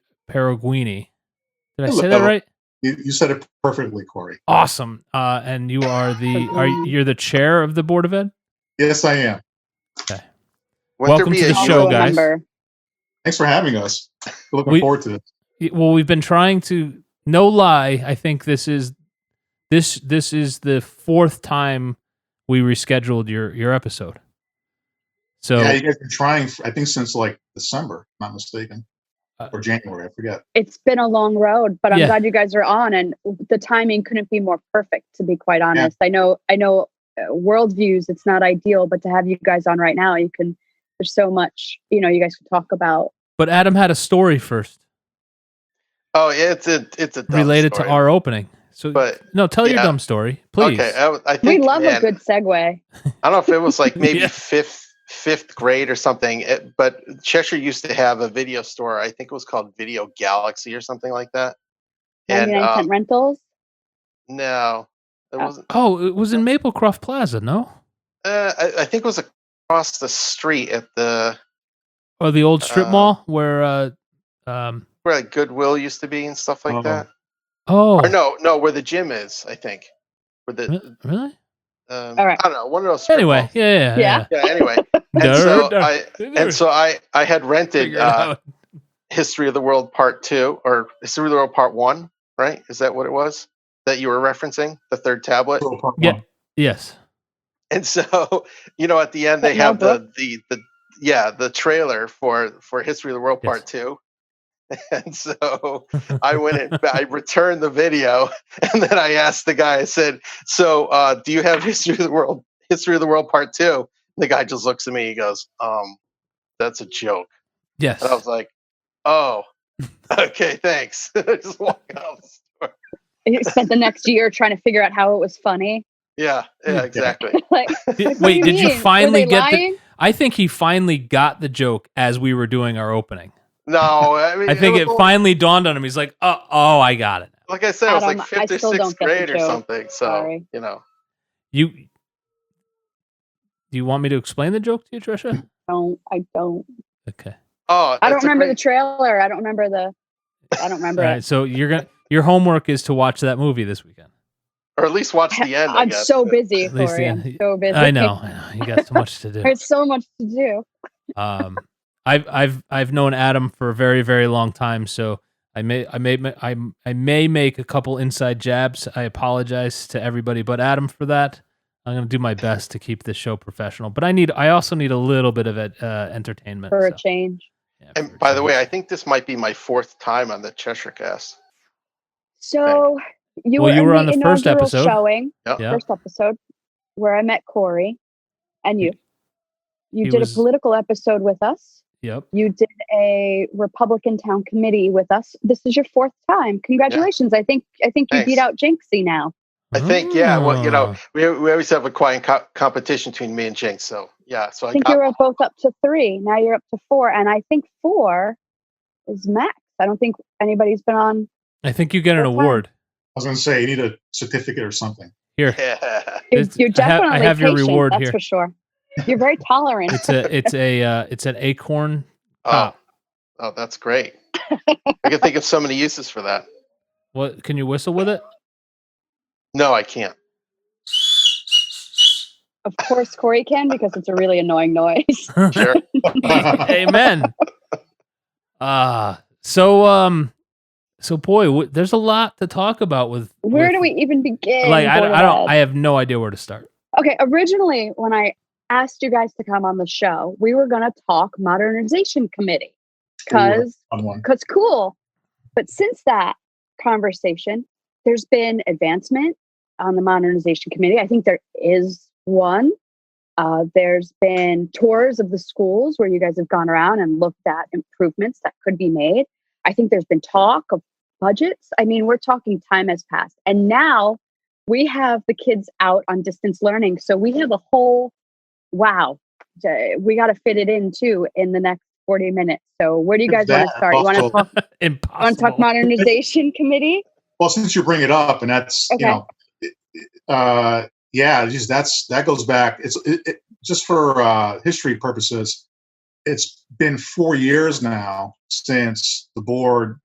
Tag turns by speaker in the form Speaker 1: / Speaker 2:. Speaker 1: Perugini. Did I
Speaker 2: Hello.
Speaker 1: say that right?
Speaker 2: You, you said it perfectly, Corey.
Speaker 1: Awesome. Uh, and you are the are you- you're the chair of the board of ed.
Speaker 2: Yes, I am.
Speaker 3: Won't
Speaker 1: Welcome to the
Speaker 3: issue
Speaker 1: show,
Speaker 3: of-
Speaker 1: guys.
Speaker 4: Remember.
Speaker 2: Thanks for having us. Looking
Speaker 1: We-
Speaker 2: forward to this.
Speaker 1: Y- Well, we've been trying to. No lie, I think this is this this is the fourth time we rescheduled your your episode. So
Speaker 2: Yeah, you guys been trying. f- I think since like December, if I'm not mistaken,
Speaker 1: Uh,
Speaker 2: or January. I forget.
Speaker 4: It's been a long road, but I'm
Speaker 1: Yeah.
Speaker 4: glad you guys are on, and the timing couldn't be more perfect. To be quite honest, I know, I know, uh, worldviews. It's not ideal, but to have you guys on right now, you can. There's so much, you know, you guys could talk about.
Speaker 1: but Adam had a story first
Speaker 3: Oh, yeah, it's a it's a dumb
Speaker 1: related
Speaker 3: story.
Speaker 1: to our opening. So
Speaker 3: But
Speaker 1: no, tell your
Speaker 3: yeah.
Speaker 1: dumb story, please.
Speaker 3: okay, I, I
Speaker 4: We
Speaker 3: think
Speaker 4: love a
Speaker 3: man,
Speaker 4: good segue.
Speaker 3: I don't know if it was like maybe
Speaker 1: Yeah.
Speaker 3: fifth fifth grade or something, it, but Cheshire used to have a video store. I think it was called Video Galaxy or something like that. And
Speaker 4: 99
Speaker 1: uh,
Speaker 3: um,
Speaker 4: cent rentals.
Speaker 3: no, it
Speaker 4: Oh.
Speaker 3: wasn't.
Speaker 1: oh, it was in Maplecroft Plaza, no?
Speaker 3: Uh, I, I think it was across the street at the
Speaker 1: Or the old strip
Speaker 3: Uh,
Speaker 1: mall where uh um
Speaker 3: where like Goodwill used to be and stuff like
Speaker 2: Oh.
Speaker 3: that.
Speaker 1: oh
Speaker 3: Or no, no, where the gym is. I think. Where the
Speaker 1: re- really?
Speaker 3: um,
Speaker 4: All right.
Speaker 3: I don't know one of those. strip
Speaker 1: Anyway,
Speaker 3: malls.
Speaker 1: yeah, yeah.
Speaker 4: Yeah.
Speaker 3: Yeah. Anyway,
Speaker 1: yeah.
Speaker 3: and so
Speaker 1: Nerd.
Speaker 3: I and so I I had rented.
Speaker 1: Figure it
Speaker 3: Uh,
Speaker 1: out.
Speaker 3: History of the World Part Two or History of the World Part One, right? Is that what it was that you were referencing? The third tablet.
Speaker 2: Little part
Speaker 1: Yeah.
Speaker 2: one.
Speaker 1: Yes.
Speaker 3: And so, you know, at the end they
Speaker 4: That
Speaker 3: have the,
Speaker 4: notebook?
Speaker 3: the the yeah, the trailer for for History of the World
Speaker 1: Yes.
Speaker 3: Part Two. And so I went and I returned the video and then I asked the guy, I said, So uh, do you have History of the World History of the World Part Two? The guy just looks at me, he goes, Um, that's a joke.
Speaker 1: Yes.
Speaker 3: And I was like, oh, okay, thanks. I just walk out. of the store.
Speaker 4: You spent the next year trying to figure out how it was funny.
Speaker 3: Yeah, yeah, exactly.
Speaker 4: like,
Speaker 1: Di-
Speaker 4: like, what
Speaker 1: Wait,
Speaker 4: do
Speaker 1: did
Speaker 4: mean?
Speaker 1: you
Speaker 4: Were
Speaker 1: finally
Speaker 4: they
Speaker 1: get the
Speaker 4: lying?
Speaker 1: I think he finally got the joke as we were doing our opening.
Speaker 3: No, I mean,
Speaker 1: I think
Speaker 3: was
Speaker 1: it
Speaker 3: only-
Speaker 1: finally dawned on him. He's like, "Oh, oh, I got it.
Speaker 3: like I said, it was
Speaker 4: Adam,
Speaker 3: like
Speaker 4: I
Speaker 3: fifth or
Speaker 4: still don't
Speaker 3: sixth
Speaker 4: get the
Speaker 3: grade or
Speaker 4: joke.
Speaker 3: something. So
Speaker 4: Sorry.
Speaker 3: you know,
Speaker 1: You Do you want me to explain the joke to you, Trisha?
Speaker 4: don't I don't
Speaker 1: Okay.
Speaker 3: oh,
Speaker 4: I don't
Speaker 3: that's a
Speaker 4: remember the
Speaker 3: great-
Speaker 4: trailer. I don't remember the I don't remember
Speaker 1: All right.
Speaker 4: it.
Speaker 1: So you're going to your homework is to watch that movie this weekend.
Speaker 3: or at least watch the end. I
Speaker 4: I'm
Speaker 3: guess.
Speaker 4: so busy,
Speaker 1: At least the
Speaker 4: Corey.
Speaker 1: end.
Speaker 4: I'm so busy.
Speaker 1: I know, I know. You got so much to do.
Speaker 4: There's so much to do.
Speaker 1: Um, I've I've I've known Adam for a very very long time, so I may I may I I may make a couple inside jabs. I apologize to everybody, but Adam for that. I'm gonna do my best to keep this show professional, but I need I also need a little bit of uh, entertainment.
Speaker 4: For a
Speaker 1: so,
Speaker 4: change.
Speaker 1: yeah, for a
Speaker 3: And by the
Speaker 1: change.
Speaker 3: way, I think this might be my fourth time on the Cheshire Cast.
Speaker 4: So you
Speaker 1: Well,
Speaker 4: were,
Speaker 1: you
Speaker 4: in
Speaker 1: were on the first
Speaker 4: inaugural
Speaker 1: episode.
Speaker 4: showing,
Speaker 1: yeah,
Speaker 4: first episode, where I met Corey and you. You
Speaker 1: He
Speaker 4: did
Speaker 1: was-
Speaker 4: a political episode with us.
Speaker 1: yep.
Speaker 4: You did a Republican town committee with us. This is your fourth time. Congratulations. I think I think you beat out Jinxie now.
Speaker 3: I
Speaker 1: Mm-hmm.
Speaker 3: think, yeah. Well, you know,
Speaker 1: Ah,
Speaker 3: we, we always have a quiet co- competition between me and Jinx. So yeah, so I,
Speaker 4: I think
Speaker 3: got
Speaker 4: you were both up to three. Now you're up to four. And I think four is max. I don't think anybody's been on.
Speaker 1: I think you get an
Speaker 4: That's fine.
Speaker 1: award
Speaker 2: I was going to say you need a certificate or something.
Speaker 1: here.
Speaker 3: yeah.
Speaker 4: You're,
Speaker 1: It's-
Speaker 4: you're
Speaker 1: I have-
Speaker 4: definitely
Speaker 1: I have your
Speaker 4: patient,
Speaker 1: reward
Speaker 4: that's
Speaker 1: here.
Speaker 4: for sure. You're very tolerant.
Speaker 1: It's a it's a uh, it's an acorn.
Speaker 3: Oh,
Speaker 1: Ah.
Speaker 3: oh, that's great. I can think of so many uses for that.
Speaker 1: What can you whistle with it?
Speaker 3: No, I can't.
Speaker 4: of course, Corey can because it's a really annoying noise.
Speaker 3: Sure.
Speaker 1: Amen. Uh so um so boy, w- there's a lot to talk about with
Speaker 4: Where
Speaker 1: with-
Speaker 4: do we even begin?
Speaker 1: like I,
Speaker 4: Boy,
Speaker 1: I don't
Speaker 4: Dad?
Speaker 1: I have no idea where to start.
Speaker 4: okay, originally when I asked you guys to come on the show, we were going to talk modernization committee because
Speaker 2: On one.
Speaker 4: because cool. But since that conversation, there's been advancement on the modernization committee. I think there is one. Uh, there's been tours of the schools where you guys have gone around and looked at improvements that could be made. I think there's been talk of budgets. I mean, we're talking time has passed. And now we have the kids out on distance learning. So we have a whole wow. j- We got to fit it in too in the next 40 minutes. So where do you guys want
Speaker 2: That
Speaker 4: to start? You want to
Speaker 2: also-
Speaker 4: talk,
Speaker 1: Impossible.
Speaker 4: want to talk modernization committee?
Speaker 2: Well, since you bring it up, and that's
Speaker 4: Okay.
Speaker 2: you know, it- it- uh, yeah, just that's that goes back. It's it, it, just for uh, history purposes. It's been four years now since the board